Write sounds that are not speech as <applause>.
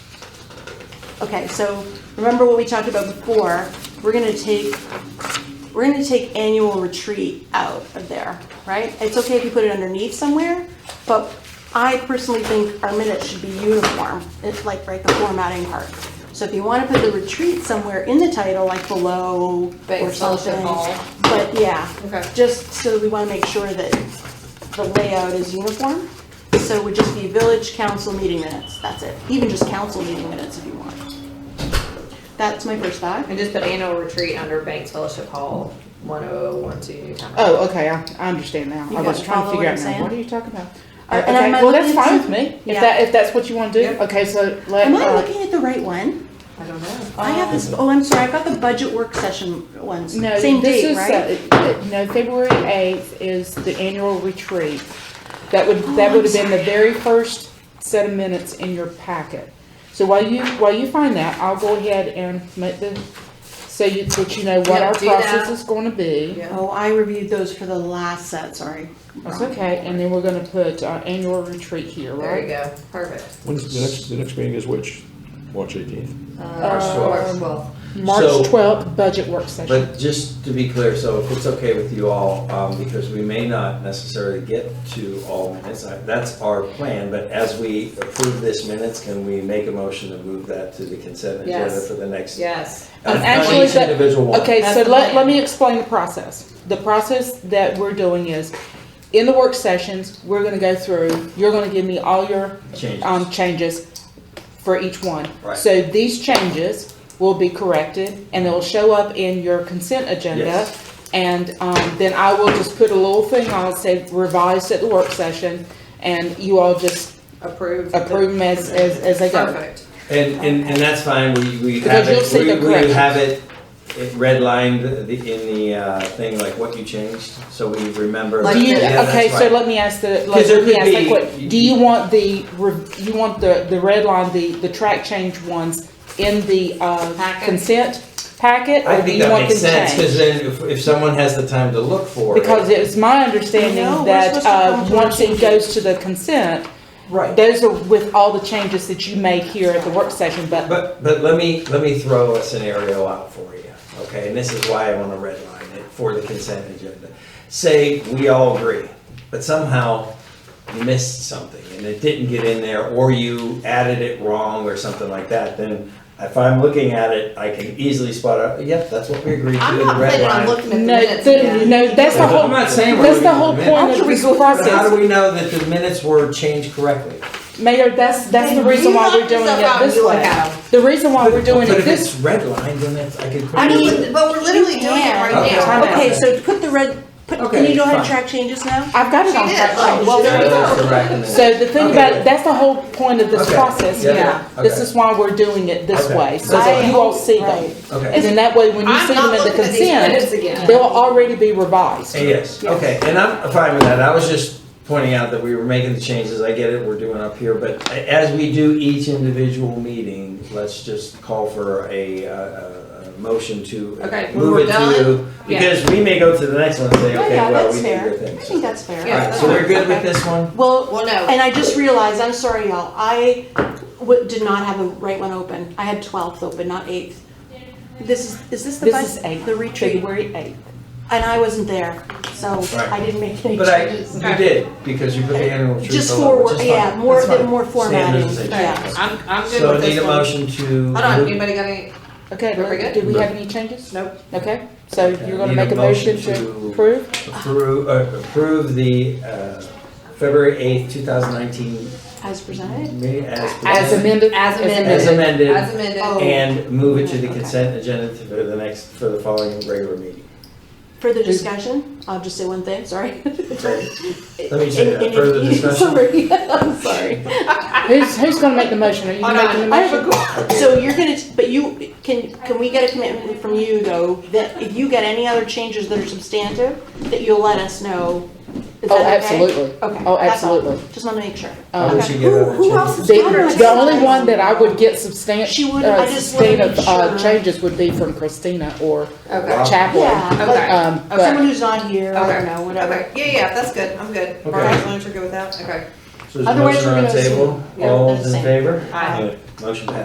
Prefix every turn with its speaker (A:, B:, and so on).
A: Okay, so remember what we talked about before, we're gonna take, we're gonna take annual retreat out of there, right? It's okay if you put it underneath somewhere, but I personally think our minutes should be uniform, it's like, right, the formatting part. So if you wanna put the retreat somewhere in the title, like below
B: But
A: or
B: it's still
A: something.
B: involved.
A: But yeah,
B: Okay.
A: just so we wanna make sure that the layout is uniform. So it would just be village council meeting minutes, that's it, even just council meeting minutes if you want. That's my first thought.
B: And just put annual retreat under Banks Fellowship Hall, one oh one two Newtown.
C: Oh, okay, I, I understand now.
A: You
C: I was
A: guys
C: trying
A: follow
C: to figure
A: what
C: out
A: I'm
C: now,
A: saying?
C: what are you talking about?
A: Uh,
C: Uh,
A: and
C: okay,
A: am I
C: well, that's
A: looking
C: fine
A: at-
C: with me,
A: Yeah.
C: if that, if that's what you wanna do,
B: Yep.
C: okay, so let,
A: Am I
C: uh,
A: looking at the right one?
B: I don't know.
A: I have this, oh, I'm sorry, I've got the budget work session ones,
C: no,
A: same
C: this
A: date,
C: is,
A: right?
C: uh, no, February eighth is the annual retreat. That would,
A: Oh,
C: that
A: I'm
C: would have been the very first set of minutes in your packet. So while you, while you find that, I'll go ahead and make the, so you, that you know what
B: Yeah,
C: our
B: do that.
C: process is gonna be.
B: Yeah.
A: Oh, I reviewed those for the last set, sorry.
C: That's okay, and then we're gonna put our annual retreat here,
B: There you
C: right?
B: go, perfect.
D: When's the next, the next meeting is which? March eighteenth.
B: Uh, March twelfth.
C: March
E: So-
C: twelfth, budget work session.
E: But just to be clear, so if it's okay with you all, um, because we may not necessarily get to all minutes, I- that's our plan, but as we approve this minutes, can we make a motion to move that to the consent agenda
B: Yes.
E: for the next?
B: Yes.
E: Uh,
C: Um,
E: not
C: actually,
E: each
C: that-
E: individual one.
C: Okay,
B: That's
C: so
B: the
C: let,
B: plan.
C: let me explain the process. The process that we're doing is, in the work sessions, we're gonna go through, you're gonna give me all your,
E: Changes.
C: um, changes for each one.
E: Right.
C: So these changes will be corrected, and they'll show up in your consent agenda.
E: Yes.
C: And, um, then I will just put a little thing on, say revised at the work session, and you all just
B: Approved.
C: approve them as, as, as they go.
B: Perfect.
E: And, and, and that's fine, we, we
C: Because
E: have
C: you'll
E: it,
C: see
E: we,
C: the
E: we
C: corrections.
E: have it it redlined the- in the, uh, thing, like what you changed, so we remember.
C: Do you,
E: Yeah, that's
C: okay, so
E: right.
C: let me ask the, let
E: 'Cause there
C: me
E: could
C: ask that
E: be- Mm-hmm.
C: quick, do you want the, re- you want the, the red line, the, the track change ones in the, uh,
B: Packet.
C: consent packet?
E: I
C: or do
E: think
C: you
E: that
C: want
E: makes
C: them
E: sense, cause
C: changed?
E: then if, if someone has the time to look for it.
C: Because it's my
A: No,
C: understanding
A: we're
C: that,
A: supposed to
C: uh,
A: come to
C: once
A: change
C: it
A: it.
C: goes to the consent,
E: Right.
C: those are with all the changes that you make here at the work session, but,
E: But, but let me, let me throw a scenario out for you, okay? And this is why I want to redline it for the consent agenda. Say, we all agree, but somehow you missed something and it didn't get in there, or you added it wrong or something like that, then if I'm looking at it, I can easily spot out, yep, that's what we agreed to,
A: I'm
E: the
A: not
E: red
A: planning on
E: line."
A: looking at the
C: no,
A: minutes.
C: the- no, that's the
E: I'm
C: whole,
E: not saying we're
C: that's the
E: looking at
C: whole
E: the
C: point
A: minutes.
C: of this
E: But how do
C: process.
E: we know that the minutes were changed correctly?
C: Mayor, that's, that's the reason why we're doing it this way. The reason why we're doing
E: But
C: it
E: if
C: this
E: it's redlined, then it's, I could.
A: I mean,
B: But we're literally
A: You
B: doing it
A: can.
B: right
E: Okay.
B: now.
C: Time out.
A: Okay, so put the red, put, can you
E: Okay,
A: go ahead and
E: fine.
A: track changes now?
C: I've got it
B: She
C: on
B: did.
C: track.
B: Oh,
C: Well,
B: she
C: there
B: did.
C: we go. So the thing
E: Okay.
C: about, it, that's the whole point of this
E: Okay.
C: process
E: Yeah,
C: here.
E: yeah.
C: This
E: Okay.
C: is why we're doing it this
E: Okay.
C: way, so
E: That's
C: that
E: all.
C: you all see
A: Right.
C: them.
E: Okay.
C: And then that way, when you
B: I'm
C: see them
B: not
C: in the
B: looking at these minutes
C: consent,
B: again.
C: they'll already be revised.
E: Yes,
A: Yes.
E: okay, and I'm fine with that, I was just pointing out that we were making the changes, I get it, we're doing up here, but as we do each individual meeting, let's just call for a, uh, a, a motion to
B: Okay, when
E: move
B: we're
E: it to,
B: done, yeah.
E: because we may go to the next one and say,
A: Yeah,
E: okay,
A: yeah,
E: well,
A: that's
E: we did
A: fair.
E: your
A: I
E: thing.
A: think that's fair.
B: Yeah,
E: Alright,
B: that's
E: so we're good with
A: Okay.
E: this one?
A: Well,
B: Well, no.
A: and I just realized, I'm sorry, y'all, I w- did not have the right one open. I had 12th open, not 8th. This is, is this the
C: This is
A: bud-
C: eight,
A: The retreat,
C: February eighth.
A: and I wasn't there, so
E: Right.
A: I didn't make any
E: But I,
A: changes.
E: you did, because you put the annual truth
A: Just
E: on it, which
A: forward,
E: is
A: yeah,
E: fine.
A: more,
E: That's fine.
A: more formatting,
E: Standards and
A: yeah.
E: changes.
B: I'm, I'm good
E: So I
B: with
E: need
B: this
E: a
B: one.
E: motion to.
B: Hold on,
E: move-
B: anybody got any?
C: Okay,
B: Very good.
C: do we have any changes?
B: Nope.
C: Okay, so
E: Okay.
C: you're gonna
E: Need a
C: make a motion to
E: motion to-
C: approve?
E: Approve, uh, approve the, uh, February eighth, two thousand nineteen,
A: As presented?
E: meeting as
C: As
E: presented.
C: amended?
B: As amended.
E: As
B: As
E: amended,
B: amended.
A: Oh.
E: and move it to the
A: Okay.
E: consent agenda to- for the next, for the following regular meeting.
A: Further discussion? I'll just say one thing, sorry.
E: Okay. Let me say that, further discussion.
A: Sorry, <laughs> I'm sorry.
C: Who's, who's gonna make the motion? Are you
B: Hold
C: making the
B: on, Oh, I have
C: motion?
B: a question.
A: So you're gonna, but you, can, can we get a commitment from you though, that if you get any other changes that are substantive, that you'll let us know? Is
C: Oh,
A: that okay?
C: absolutely.
A: Okay.
C: Oh,
A: that's all.
C: absolutely.
A: Just wanna make sure.
C: Um,
E: How would
A: Okay.
E: you get
A: Who-
E: other
A: Who else is?
E: changes?
C: The,
A: on our
C: the only
A: exercise?
C: one that I would get substan-
A: She would-
C: uh,
A: I just wanna
C: substantive,
A: make
C: uh,
A: sure.
C: changes would be from Christina or
B: Okay.
C: Chapel.
A: Yeah,
B: Okay.
A: like, uh,
C: Um,
A: someone
C: but,
A: who's not here, I
B: Okay.
A: don't know, whatever.
B: Okay, yeah, yeah, that's good, I'm good. Mark, as long as you're good with that, okay.
E: So there's a
A: Otherwise,
E: motion
A: we're
E: on the
A: gonna
E: table,
A: see. Yeah,
E: all
A: they're the
E: in
A: same.
E: favor?
B: Aye.
E: Motion